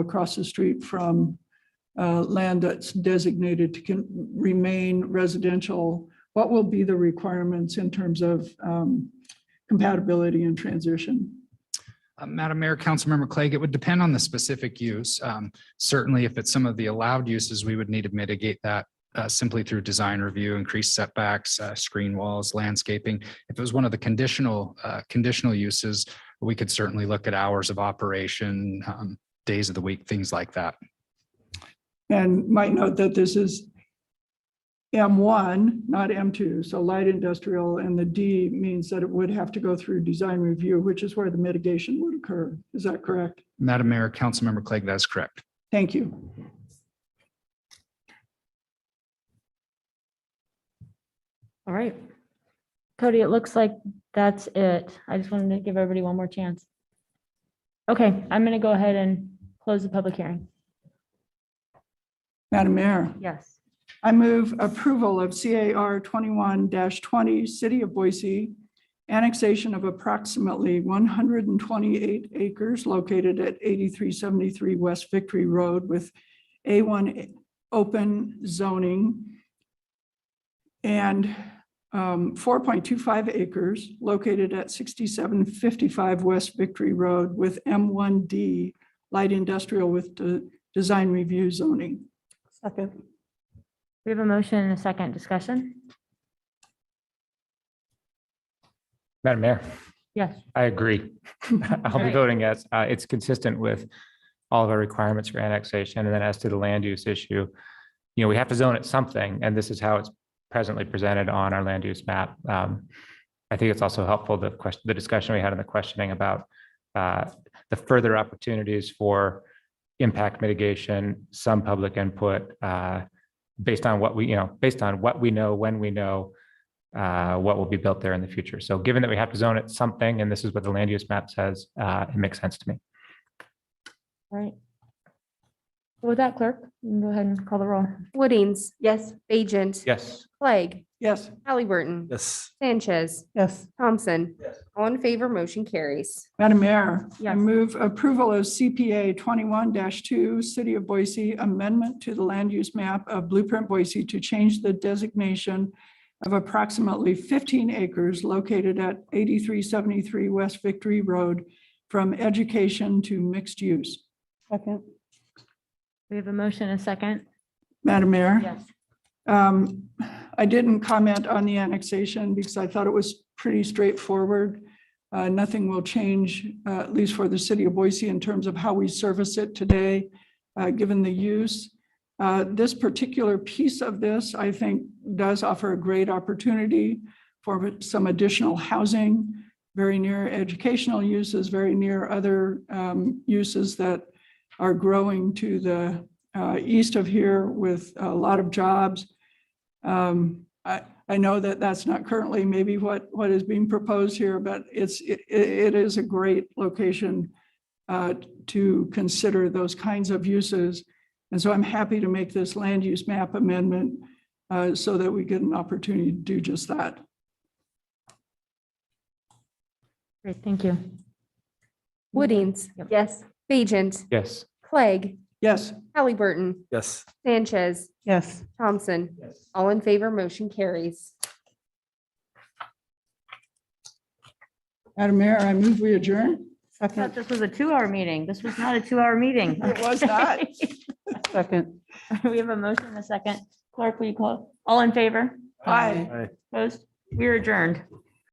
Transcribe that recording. across the street from uh, land that's designated to can remain residential, what will be the requirements in terms of um, compatibility and transition? Uh, Madam Mayor, Councilmember Clegg, it would depend on the specific use. Um, Certainly, if it's some of the allowed uses, we would need to mitigate that uh, simply through design review, increased setbacks, uh, screen walls, landscaping. If it was one of the conditional, uh, conditional uses, we could certainly look at hours of operation, um, days of the week, things like that. And might note that this is M1, not M2, so light industrial, and the D means that it would have to go through design review, which is where the mitigation would occur. Is that correct? Madam Mayor, Councilmember Clegg, that is correct. Thank you. All right. Cody, it looks like that's it. I just wanted to give everybody one more chance. Okay, I'm going to go ahead and close the public hearing. Madam Mayor, Yes. I move approval of CAR 21-20, City of Boise, annexation of approximately 128 acres located at 8373 West Victory Road with A1 open zoning and um, 4.25 acres located at 6755 West Victory Road with M1D light industrial with de- design review zoning. Second. We have a motion and a second discussion. Madam Mayor, Yes. I agree. I'll be Right. voting yes. Uh, It's consistent with all of our requirements for annexation. And then as to the land use issue, you know, we have to zone it something, and this is how it's presently presented on our land use map. Um, I think it's also helpful, the question, the discussion we had in the questioning about uh, the further opportunities for impact mitigation, some public input, uh, based on what we, you know, based on what we know, when we know, uh, what will be built there in the future. So given that we have to zone it something, and this is what the land use map says, uh, it makes sense to me. All right. With that clerk, you can go ahead and call the roll. Woodings. Yes. Bajent. Yes. Clegg. Yes. Halliburton. Yes. Sanchez. Yes. Thompson. All in favor, motion carries. Madam Mayor, I Yes. move approval of CPA twenty-one two, City of Boise Amendment to the Land Use Map of Blueprint Boise to change the designation of approximately fifteen acres located at eighty-three seventy-three West Victory Road from education to mixed use. Second. We have a motion and a second. Madam Mayor? Yes. Um, I didn't comment on the annexation because I thought it was pretty straightforward. Uh, Nothing will change, uh, at least for the city of Boise, in terms of how we service it today, uh, given the use. Uh, This particular piece of this, I think, does offer a great opportunity for some additional housing, very near educational uses, very near other um, uses that are growing to the uh, east of here with a lot of jobs. Um, I, I know that that's not currently maybe what, what is being proposed here, but it's, it, it is a great location uh, to consider those kinds of uses. And so I'm happy to make this land use map amendment uh, so that we get an opportunity to do just that. Great, thank you. Woodings. Yep. Yes. Bajent. Yes. Clegg. Yes, Halliburton. Yes. Sanchez. Yes. Thompson. All in favor, motion carries. Madam Mayor, I move we adjourn. Second. this was a two-hour meeting. This was not a two-hour meeting. It was not. Second. We have a motion and a second. Clerk, will you call? All in favor? Aye. Opposed? We're adjourned.